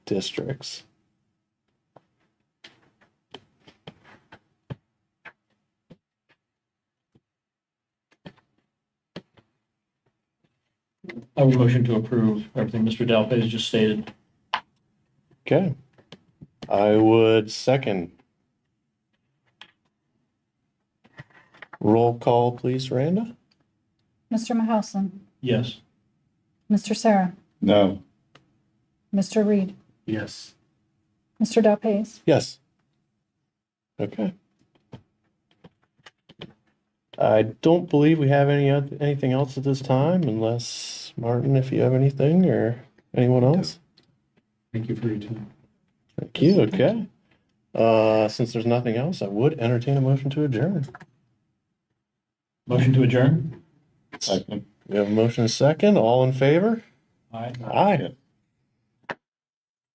districts. I would motion to approve everything Mr. Dalpez just stated. Okay. I would second. Roll call, please, Randa? Mr. Mahousen, Yes. Mr. Sarah, No. Mr. Reed, Yes. Mr. Dalpace, Yes. Okay. I don't believe we have any, oth- anything else at this time unless, Martin, if you have anything or anyone else? Thank you for your time. Thank you, okay. Uh, since there's nothing else, I would entertain a motion to adjourn. Motion to adjourn? Second. We have a motion and a second, all in favor? Aye. Aye.